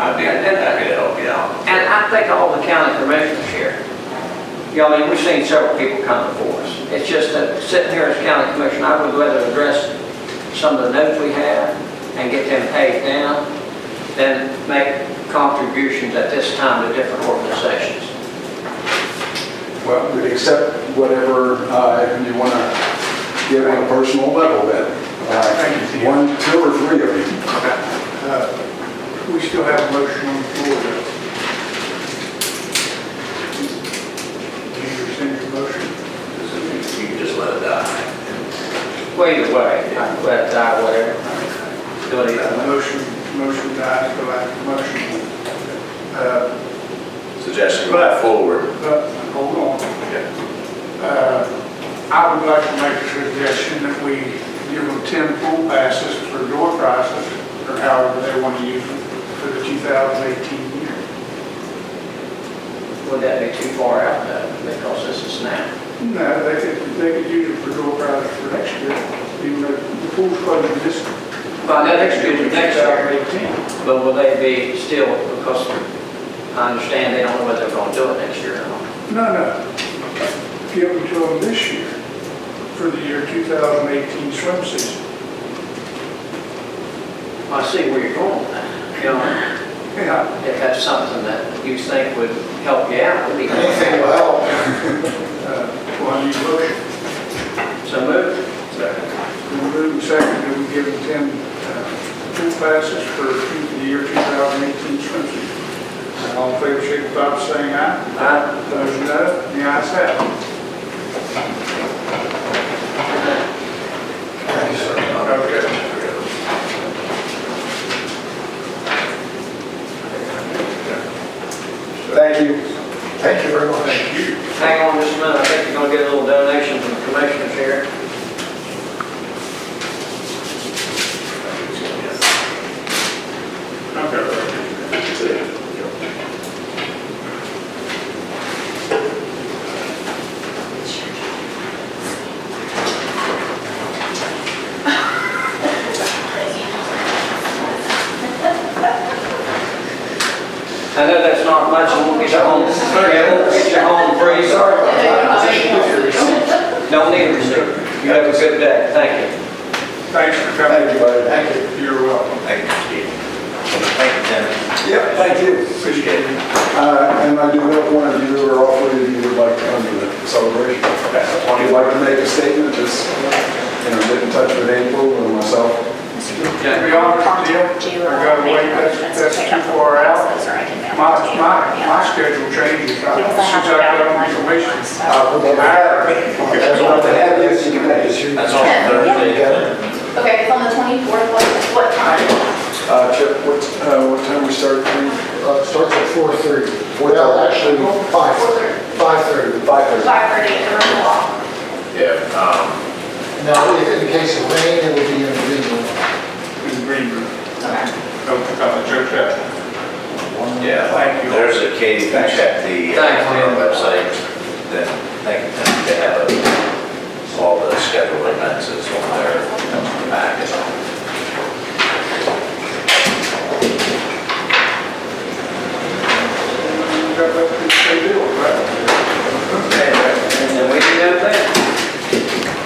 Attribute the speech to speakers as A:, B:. A: I'd be, I'd, I'd help you out.
B: And I think all the county commissioners here, you know, I mean, we've seen several people come before us. It's just that sitting here as county commissioner, I would rather address some of the notes we have and get them paid down than make contributions at this time to different organizations.
C: Well, accept whatever uh, you want to give on a personal level then.
D: Thank
C: Uh,
D: you.
C: One, two, or three of you.
D: We still have a motion on the floor. though. Can you rescind your motion?
A: You can just let it die.
B: Well, either way, I could let it die, whatever. uh, Do it either way.
D: Motion, motion dies, go out of motion. Uh,
A: Suggestion going forward.
D: But, hold on.
A: Yeah.
D: Uh, I would like to make a suggestion that we give them 10 pool passes for door prizes, or however they want to use them, for the 2018 year.
B: Would that be too far out, though, because this is now?
D: No, they could, they could use it for door prizes for next year, even though the pool's closing this.
B: Well, no, next year, next year.
D: 2018.
B: But will they be still, because I understand they don't know whether they're going to do it next year or not.
D: No, no. Give them to them this year for the year 2018 swim season.
B: I see where you're going with that. You know,
D: Yeah,
B: if that's something that you think would help you out, would be
D: anything
B: good.
D: will help. Uh, Well, you motion,
B: So move.
D: we move and second, and we give them 10 uh, pool passes for the year 2018 swim season. And All in favor, signify by saying aye.
B: Aye.
D: Those no, the ayes have it. Okay.
C: Thank you. Thank you very much.
D: Thank you.
B: Hang on just a minute, I think you're going to get a little donation from the commissioners here. I know that's not much, and we'll get you home, yeah, we'll get you home free. Sorry Don't need a receipt. You have a good day, thank you.
D: Thanks for coming.
C: Thank you, buddy. Thank you.
D: You're welcome.
A: Thank you, Steve. Thank you, Tim.
C: Yeah, thank you.
D: Appreciate it.
C: Uh, And I do hope one of you or all three of you would like to come to the celebration. If you'd like to make a statement, just, you know, get in touch with April or myself.
D: To be honest with you, I gotta wait, that's, that's too far out. My, my, my schedule changes, I- since I've got on information.
C: Uh, we'll be happy. I'd love to have you if you can make it.
A: That's on Thursday. isn't it?
E: Okay, it's on the 24th, what- what time?
C: Uh, Chip, what, uh, what time we start?
F: Uh, Starts at 4:30.
C: Four
F: Well,
C: thirty.
F: actually, 5, 5:30.
C: 5:30.
E: 5:30 at the room wall.
A: Yeah, um,
F: Now, if in case of rain, it will be in
A: uh, uh,